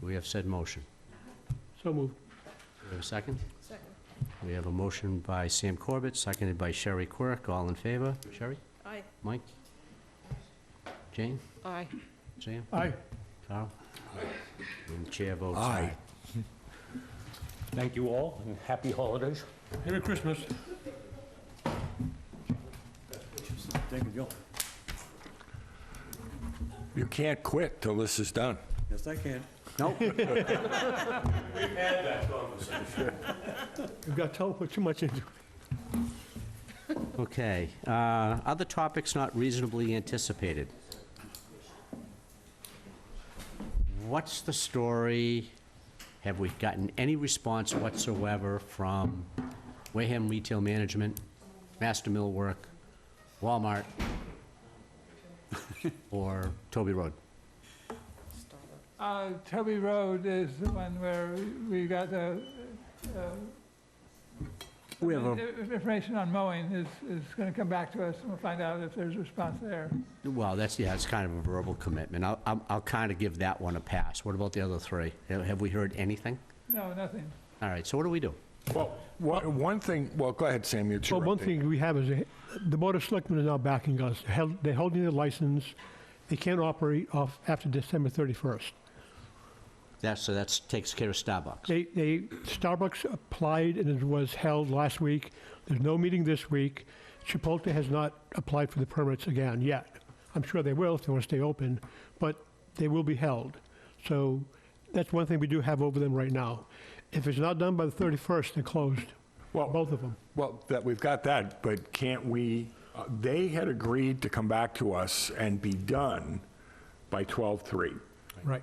we have said motion? So moved. Do we have a second? Second. We have a motion by Sam Corbett, seconded by Sherry Quirk. All in favor? Sherry? Aye. Mike? Jane? Aye. Sam? Aye. Carl? And the chair votes aye. Aye. Thank you all, and happy holidays. Merry Christmas. Thank you, Joe. You can't quit till this is done. Yes, I can. We've got to put too much into it. Okay, uh, other topics not reasonably anticipated. What's the story? Have we gotten any response whatsoever from Wareham Retail Management, Master Mill Work, Walmart, or Toby Road? Uh, Toby Road is the one where we got the, uh, We have a, the information on mowing is, is gonna come back to us, and we'll find out if there's a response there. well, that's, yeah, it's kind of a verbal commitment. I'll, I'll- I'll kind of give that one a pass. What about the other three? Have have we heard anything? No, nothing. All right, so what do we do? Well, one one thing, well, go ahead, Sam, you Well, one interrupted. thing we have is, uh, the Board of Selectmen is now backing us. Held- They're holding their license. They can't operate off after December 31st. That, so that takes care of Starbucks. They, they, Starbucks applied and it was held last week. There's no meeting this week. Chipotle has not applied for the permits again yet. I'm sure they will if they want to stay open, but they will be held. So that's one thing we do have over them right now. If it's not done by the 31st, they're closed, Well, both of them. well, that, we've got that, but can't we, uh, they had agreed to come back to us and be done by 12/3. Right.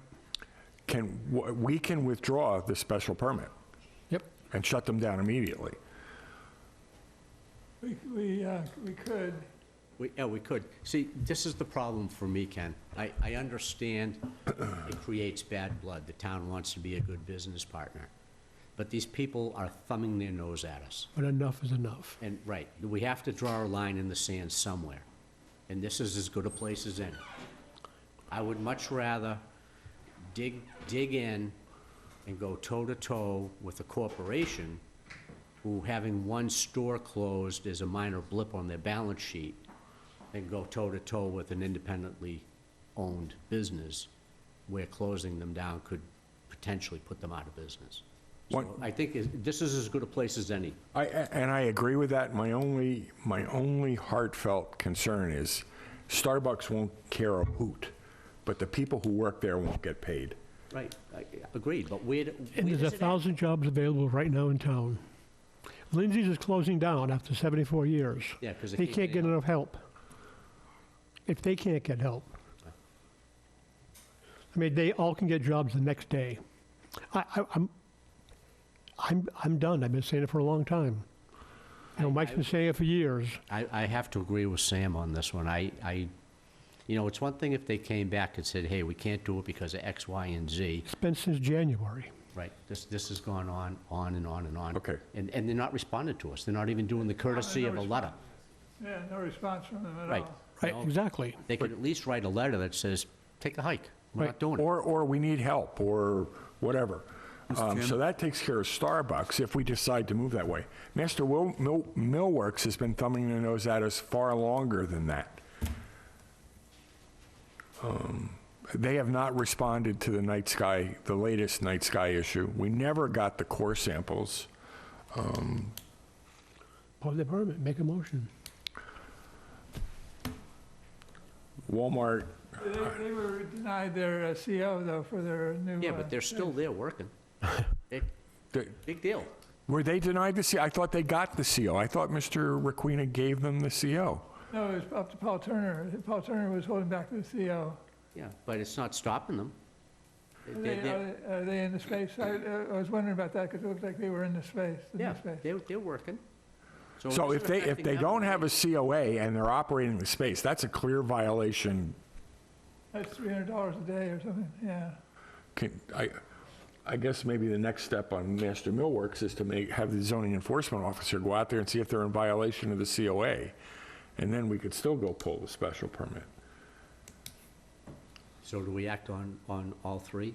Can, w- we can withdraw the special permit Yep. and shut them down immediately. We, we, uh, we could, We, yeah, we could. See, this is the problem for me, Ken. I, I understand it creates bad blood. The town wants to be a good business partner. But these people are thumbing their nose at us. But enough is enough. And, right, we have to draw a line in the sand somewhere. And this is as good a place as any. I would much rather dig, dig in and go toe-to-toe with a corporation who, having one store closed is a minor blip on their balance sheet, than go toe-to-toe with an independently owned business where closing them down could potentially put them out of business. So One- I think is- this is as good a place as any. I, a- and I agree with that. My only, my only heartfelt concern is Starbucks won't care a hoot, but the people who work there won't get paid. Right, I- agreed, but where, do- And where there's a does it end? thousand jobs available right now in town. Lindsay's is closing down after 74 years. Yeah, 'cause they They can't can't get get enough help. If they can't get help. I mean, they all can get jobs the next day. I, I, I'm, I'm, I'm done. I've been saying it for a long time. You know, Mike's been saying it for years. I, I have to agree with Sam on this one. I, I, you know, it's one thing if they came back and said, hey, we can't do it because of X, Y, and Z. It's been since January. Right, this, this has gone on, on and on and on. Okay. And, and they're not responding to us. They're not even doing the courtesy of a letter. yeah, no response from them at Right. all. Right, No. exactly. They could at least write a letter that says, take a hike. We're not Right. doing it. Or, or we need help, or whatever. Um, So that takes care of Starbucks if we decide to move that way. Master Will, Mill, Millworks has been thumbing their nose at us far longer than that. Um, They have not responded to the night sky, the latest night sky issue. We never got the core samples. Pull the permit, make a motion. Walmart, They, they were denied their uh, CO though for their new. Yeah, uh, but they're still there working. Big- they- Big deal. were they denied the CO? I thought they got the CO. I thought Mr. Requena gave them the CO. No, it was up to Paul Turner. Paul Turner was holding back the CO. Yeah, but it's not stopping them. They- Are they- they, they're- are they- are they in the space? I, I was wondering about that because it looked like they were in the space, in Yeah, the space. they're, they're working. it So isn't if they, if affecting they them, don't have they- a COA and they're operating the space, that's a clear violation. That's three hundred dollars a day or something, yeah. Can- I, I guess maybe the next step on Master Millworks is to make, have the zoning enforcement officer go out there and see if they're in violation of the COA. And then we could still go pull the special permit. So do we act on, on all three?